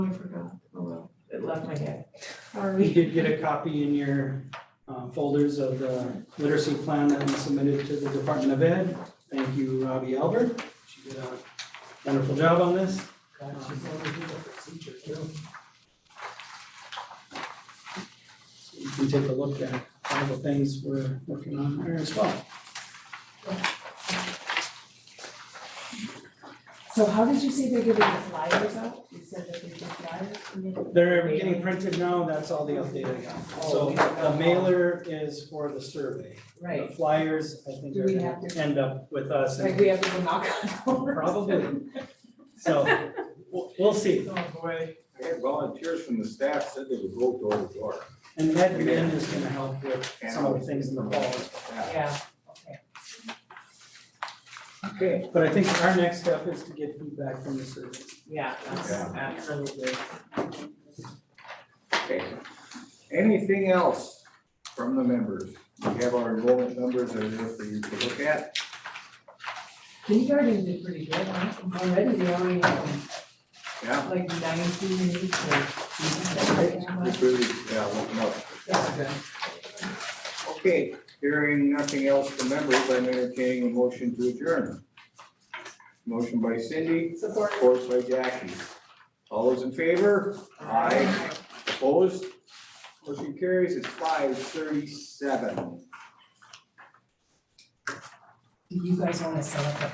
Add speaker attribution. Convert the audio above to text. Speaker 1: totally forgot. Oh, well. It left my head.
Speaker 2: You
Speaker 1: Sorry.
Speaker 2: did get a copy in your uh, folders of the literacy plan that we submitted to the Department of Ed. Thank you, Robbie Albert. She did a wonderful job on this. So You can take a look at all the things we're working on there as well.
Speaker 1: So how did you say they're giving the flyers out? You said that they did flyers? and then-
Speaker 2: They're getting printed now, that's all the update I got.
Speaker 1: Oh,
Speaker 2: So the mailer is for the survey. The
Speaker 1: Right,
Speaker 2: flyers, I think,
Speaker 1: Do
Speaker 2: are
Speaker 1: we
Speaker 2: gonna
Speaker 1: have to-
Speaker 2: end up with us and
Speaker 1: like we have to go knock on doors.
Speaker 2: Probably. So, we'll, we'll see.
Speaker 1: Oh, boy.
Speaker 3: I had volunteers from the staff said they would go door to door.
Speaker 2: And that again is gonna help with some of the things in the fall.
Speaker 3: fall.
Speaker 1: Yeah, okay.
Speaker 3: Okay.
Speaker 2: But I think our next step is to get feedback from the survey.
Speaker 1: Yeah, that's
Speaker 3: Yeah.
Speaker 1: absolutely.
Speaker 3: Okay. Anything else from the members? We have our enrollment numbers that are there for you to look at.
Speaker 1: Kindergarten did pretty good, huh? Already, they already have
Speaker 3: Yeah.
Speaker 1: like nineteen minutes or.
Speaker 3: Just really, yeah, looking up. Okay, hearing nothing else from members, I'm entertaining a motion to adjourn. Motion by Cindy,
Speaker 1: Support.
Speaker 3: support by Jackie. All those in favor? Aye. Opposed? Motion carries, it's five thirty-seven.
Speaker 1: Do you guys wanna set up a